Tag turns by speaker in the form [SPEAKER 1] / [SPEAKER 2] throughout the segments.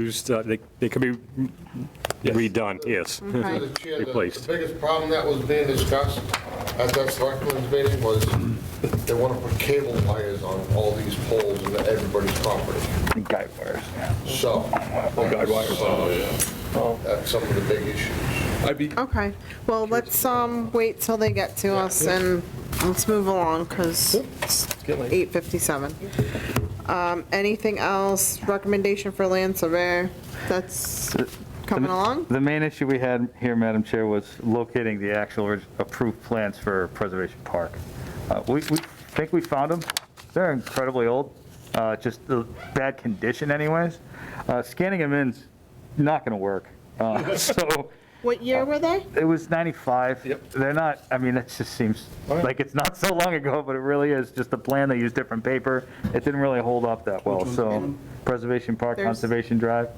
[SPEAKER 1] used, uh, they they can be redone, yes.
[SPEAKER 2] Through the chair, the-
[SPEAKER 1] Replaced.
[SPEAKER 2] The biggest problem that was being discussed at that selectmen's meeting was they want to put cable wires on all these poles in everybody's property.
[SPEAKER 3] Guy wires, yeah.
[SPEAKER 2] So.
[SPEAKER 3] Oh, guide wires.
[SPEAKER 2] So, yeah. That's some of the big issues.
[SPEAKER 3] I'd be,
[SPEAKER 4] Okay, well, let's, um, wait till they get to us and let's move along, because it's
[SPEAKER 3] get late.
[SPEAKER 4] 8:57. Um, anything else, recommendation for land surveyor, that's coming along?
[SPEAKER 5] Uh, The main issue we had here, Madam Chair, was locating the actual orig- approved plans for Preservation Park. Uh, We, we think we found them. They're incredibly old, uh, just uh, bad condition anyways. Uh, Scanning them in's not going to work. Uh, So
[SPEAKER 4] What year were they?
[SPEAKER 5] it was 95.
[SPEAKER 3] Yep.
[SPEAKER 5] They're not, I mean, that just seems
[SPEAKER 3] yeah.
[SPEAKER 5] like it's not so long ago, but it really is just a plan. They used different paper. It didn't really hold up that well, so Preservation Park,
[SPEAKER 4] There's-
[SPEAKER 5] Conservation Drive.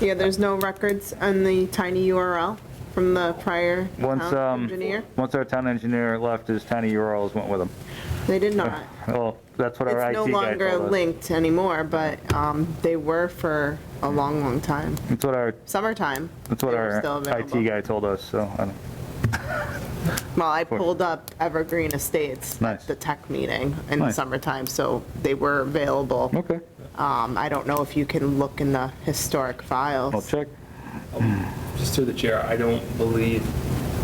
[SPEAKER 4] Yeah, there's no records on the tiny URL from the prior
[SPEAKER 5] Once,
[SPEAKER 4] town
[SPEAKER 5] um,
[SPEAKER 4] engineer?
[SPEAKER 5] Once our town engineer left, his tiny URLs went with him.
[SPEAKER 4] They did not.
[SPEAKER 5] Well, that's what our IT
[SPEAKER 4] It's no
[SPEAKER 5] guy
[SPEAKER 4] longer
[SPEAKER 5] told us.
[SPEAKER 4] linked anymore, but, um, they were for a long, long time,
[SPEAKER 5] That's what our,
[SPEAKER 4] summertime.
[SPEAKER 5] that's what
[SPEAKER 4] they were
[SPEAKER 5] our
[SPEAKER 4] still available.
[SPEAKER 5] IT guy told us, so, I don't-
[SPEAKER 4] Well, I pulled up Evergreen Estates
[SPEAKER 5] Nice.
[SPEAKER 4] at the tech meeting in the
[SPEAKER 5] Nice.
[SPEAKER 4] summertime, so they were available.
[SPEAKER 5] okay,
[SPEAKER 4] Um, I don't know if you can look in the historic
[SPEAKER 5] I'll
[SPEAKER 4] files.
[SPEAKER 5] check.
[SPEAKER 6] Just through the chair, I don't believe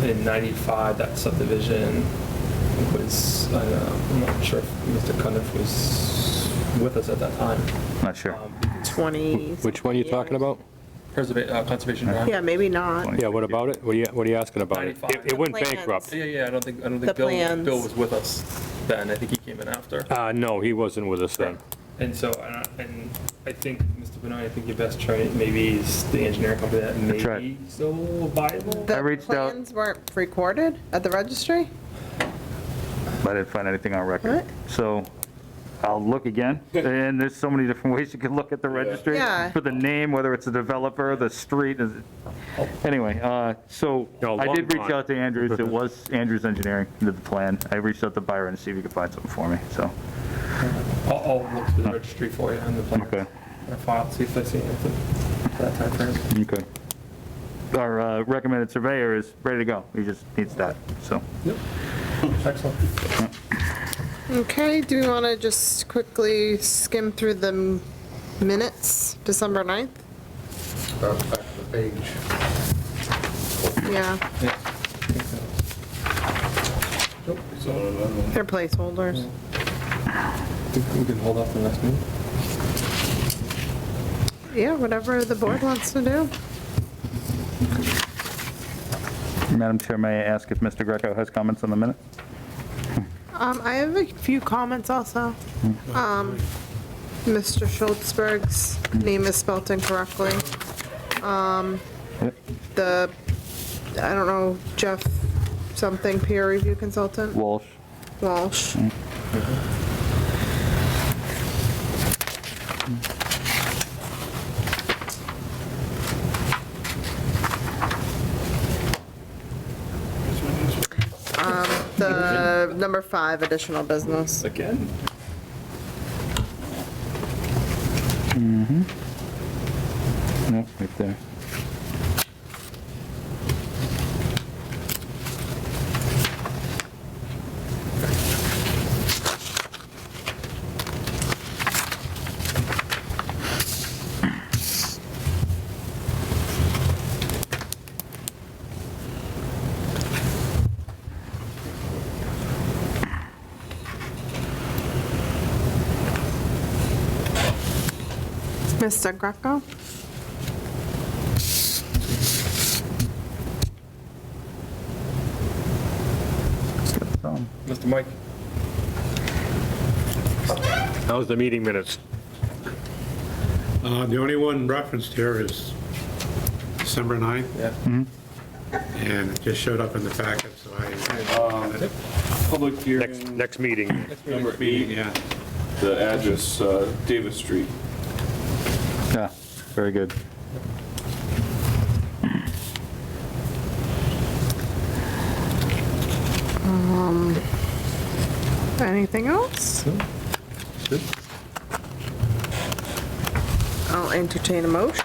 [SPEAKER 6] in 95 that subdivision was, I don't know, I'm not sure if Mr. Cundiff was with us at that time.
[SPEAKER 5] Not sure.
[SPEAKER 6] Um,
[SPEAKER 4] 20.
[SPEAKER 7] Which one are you talking about?
[SPEAKER 6] Preserva- uh, Conservation Drive?
[SPEAKER 4] Yeah, maybe not.
[SPEAKER 5] Yeah,
[SPEAKER 7] Yeah, what about it? What are you, what are you asking about? it?
[SPEAKER 6] 95.
[SPEAKER 1] It it went
[SPEAKER 4] The plans.
[SPEAKER 1] bankrupt.
[SPEAKER 6] Yeah, yeah, I don't think, I don't
[SPEAKER 4] The
[SPEAKER 6] think Bill,
[SPEAKER 4] plans.
[SPEAKER 6] Bill was with us then. I think he came in after.
[SPEAKER 1] Uh, No, he wasn't with us then.
[SPEAKER 6] And so, and I- and I think, Mr. Benoit, I think your best try maybe is the engineering company that may
[SPEAKER 5] right.
[SPEAKER 6] be still viable.
[SPEAKER 5] I reached
[SPEAKER 4] The
[SPEAKER 5] out-
[SPEAKER 4] plans weren't recorded at the registry?
[SPEAKER 5] I didn't find anything on
[SPEAKER 4] What?
[SPEAKER 5] record. So I'll look again, and there's so many different ways you can look at the registry.
[SPEAKER 4] Yeah.
[SPEAKER 5] For the name, whether it's the developer, the street, is it- anyway, uh, so
[SPEAKER 1] No,
[SPEAKER 5] I
[SPEAKER 1] long
[SPEAKER 5] did reach
[SPEAKER 1] gone.
[SPEAKER 5] out to Andrews. It was Andrews Engineering that did the plan. I reached out to Byron to see if he could find something for me, so,
[SPEAKER 6] I'll, I'll look through the registry for you and the plan.
[SPEAKER 5] okay.
[SPEAKER 6] Or file, see if I see anything for that timeframe.
[SPEAKER 5] Okay. Our uh, recommended surveyor is ready to go. He just needs that, so.
[SPEAKER 6] Excellent.
[SPEAKER 4] Okay, do we want to just quickly skim through the m- minutes, December 9th?
[SPEAKER 2] That's back to the page.
[SPEAKER 4] Yeah, they're placeholders.
[SPEAKER 6] Think we can hold off the next meeting?
[SPEAKER 4] Yeah, whatever the board wants to do.
[SPEAKER 5] Madam Chair, may I ask if Mr. Greco has comments on the minute?
[SPEAKER 4] Um, I have a few comments also. Um, Mr. Schultzberg's name is spelt incorrectly. Um,
[SPEAKER 5] Yep.
[SPEAKER 4] the, I don't know, Jeff something peer review consultant,
[SPEAKER 5] Walsh.
[SPEAKER 4] Walsh. Um, the number five additional business.
[SPEAKER 6] Again?
[SPEAKER 5] Yep, right there.
[SPEAKER 4] Mr. Greco?
[SPEAKER 5] So,
[SPEAKER 6] Mr. Mike?
[SPEAKER 1] How's the meeting minutes?
[SPEAKER 8] Uh, The only one referenced here is December 9th,
[SPEAKER 6] Yeah.
[SPEAKER 8] and it just showed up in the packet, so I,
[SPEAKER 9] Public
[SPEAKER 1] Next,
[SPEAKER 9] hearing,
[SPEAKER 1] next meeting.
[SPEAKER 9] number eight,
[SPEAKER 8] yeah.
[SPEAKER 9] the address, uh, Davis Street.
[SPEAKER 5] Yeah, very good.
[SPEAKER 4] Anything else? I'll entertain a motion.